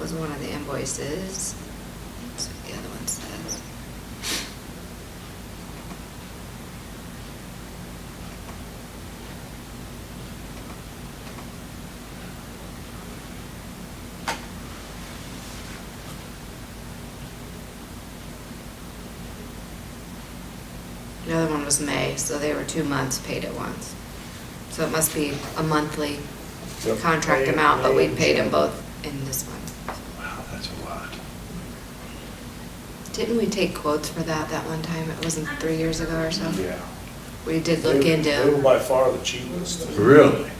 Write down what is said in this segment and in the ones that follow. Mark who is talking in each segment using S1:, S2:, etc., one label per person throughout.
S1: was one of the invoices. That's what the other one says. The other one was May, so they were two months paid at once. So it must be a monthly
S2: Yep.
S1: contract
S2: May-
S1: amount, but we
S2: May and
S1: paid them
S2: June.
S1: both in this month.
S3: Wow, that's a lot.
S1: Didn't we take quotes for that that one time? It wasn't three years ago or so?
S2: Yeah.
S1: We did look
S2: They- They were
S1: into.
S2: by far the cheapest.
S3: Really?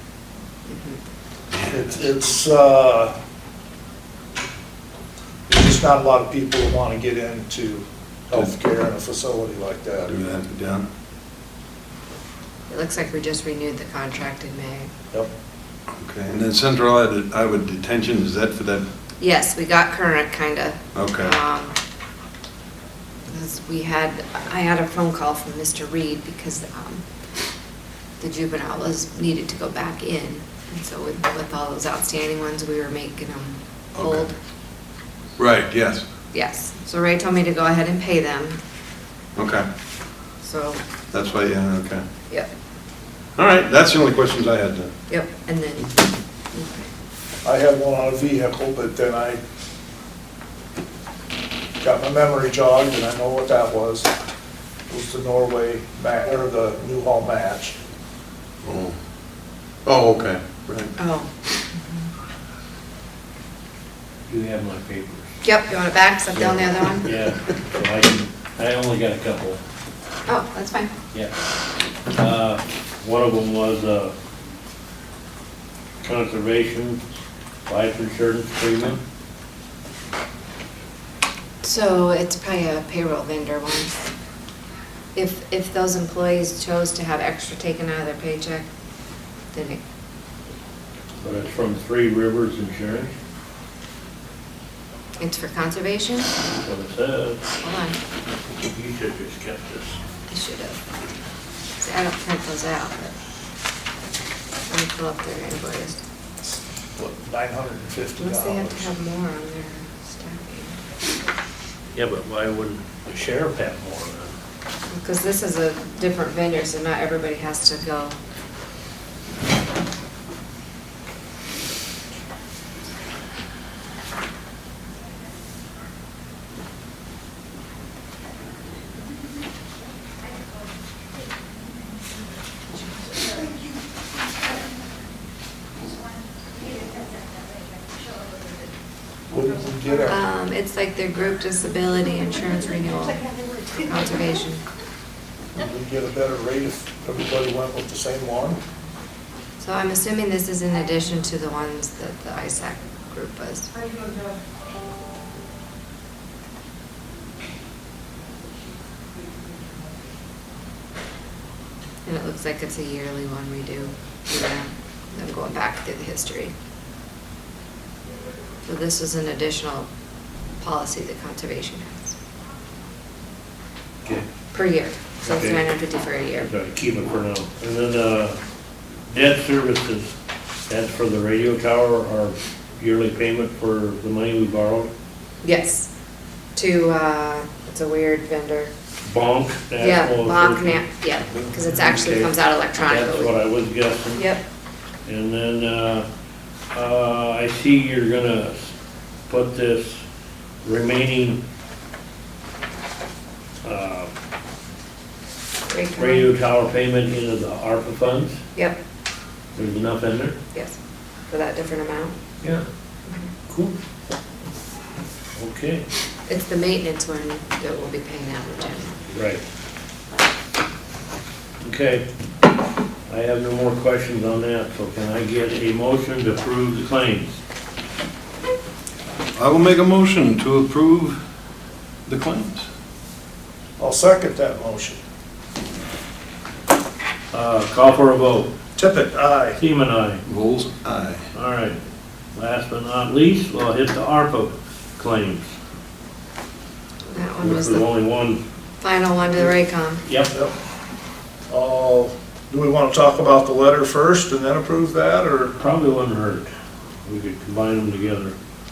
S1: Mm-hmm.
S2: It's, it's, uh, there's just not a lot of people who want to get into healthcare in a facility like that.
S3: Do that, done.
S1: It looks like we just renewed the contract in May.
S2: Yep.
S3: Okay, and then central Iowa- Iowa detention, is that for that?
S1: Yes, we got current, kinda.
S3: Okay.
S1: Um, 'cause we had, I had a phone call from Mr. Reed because, um, the juvenile was, needed to go back in. And so with, with all those outstanding ones, we were making them hold.
S3: Okay. Right, yes,
S1: Yes, so Ray told me to go ahead and pay them,
S3: okay.
S1: so,
S3: That's why, yeah, okay.
S1: yep,
S3: All right, that's the only questions I had then.
S1: yep, and then,
S2: I had one on a vehicle, but then I got my memory jogged, and I know what that was. It was the Norway, ma- or the Newhall match.
S3: Oh, oh, okay, right.
S1: oh,
S4: You have my papers.
S1: yep, you want it back, set down the other one?
S4: Yeah, so I can, I only got a couple,
S1: Oh, that's fine.
S4: yeah. Uh, One of them was, uh, conservation, life insurance premium.
S1: So it's probably a payroll vendor one. If, if those employees chose to have extra taken out of their paycheck, then it,
S4: But it's from Three Rivers Insurance,
S1: it's for conservation?
S4: that's what it says.
S1: Hold on,
S4: You should just kept this.
S1: I should have. See, I don't print those out, but let me pull up their invoice.
S2: What, nine hundred and fifty
S1: Unless they have to
S2: dollars?
S1: have more on their staffing.
S4: Yeah, but why wouldn't the sheriff have more than?
S1: Because this is a different vendor, so not everybody has to go.
S2: Wouldn't we get our,
S1: Um, it's like their group disability insurance renewal for conservation.
S2: would we get a better rate if everybody went with the same one?
S1: So I'm assuming this is in addition to the ones that the ISAC group was. And it looks like it's a yearly one we do. for them. I'm going back through the history. So this is an additional policy that conservation has
S4: Okay.
S1: per year. So it's
S4: Okay.
S1: 950 for a year.
S4: Gotta keep it uh, for now. And then, uh, debt services, that's for the radio tower, our yearly payment for the money we borrowed.
S1: Yes. To, uh, it's a weird vendor.
S4: Bonk. that's
S1: Yeah,
S4: all
S1: lock,
S4: the-
S1: na- yeah, because it actually
S4: Okay.
S1: comes out
S4: That's what
S1: electronically.
S4: I was guessing.
S1: Yep,
S4: And then, uh, uh, I see you're gonna put this remaining, uh,
S1: great comment.
S4: radio tower payment into the ARPA funds.
S1: Yep,
S4: There's enough in there?
S1: yes, for that different amount.
S4: Yeah. Cool. Okay.
S1: It's the maintenance one that we'll be paying out in general.
S4: Right. Okay. I have no more questions on that, so can I get a motion to approve the claims?
S3: I will make a motion to approve the claims.
S2: I'll second that motion.
S4: Uh, Call for a vote.
S2: Tippit, aye.
S4: Seaman, aye.
S3: Vols, aye.
S4: All right. Last but not least, we'll hit the ARPA claims.
S1: That one
S4: This
S1: was
S4: is
S1: the
S4: only one.
S1: final one to the Raycom.
S4: Yep.
S2: Yep. Uh, do we want to talk about the letter first and then approve that, or?
S4: Probably wouldn't hurt. We could combine them together.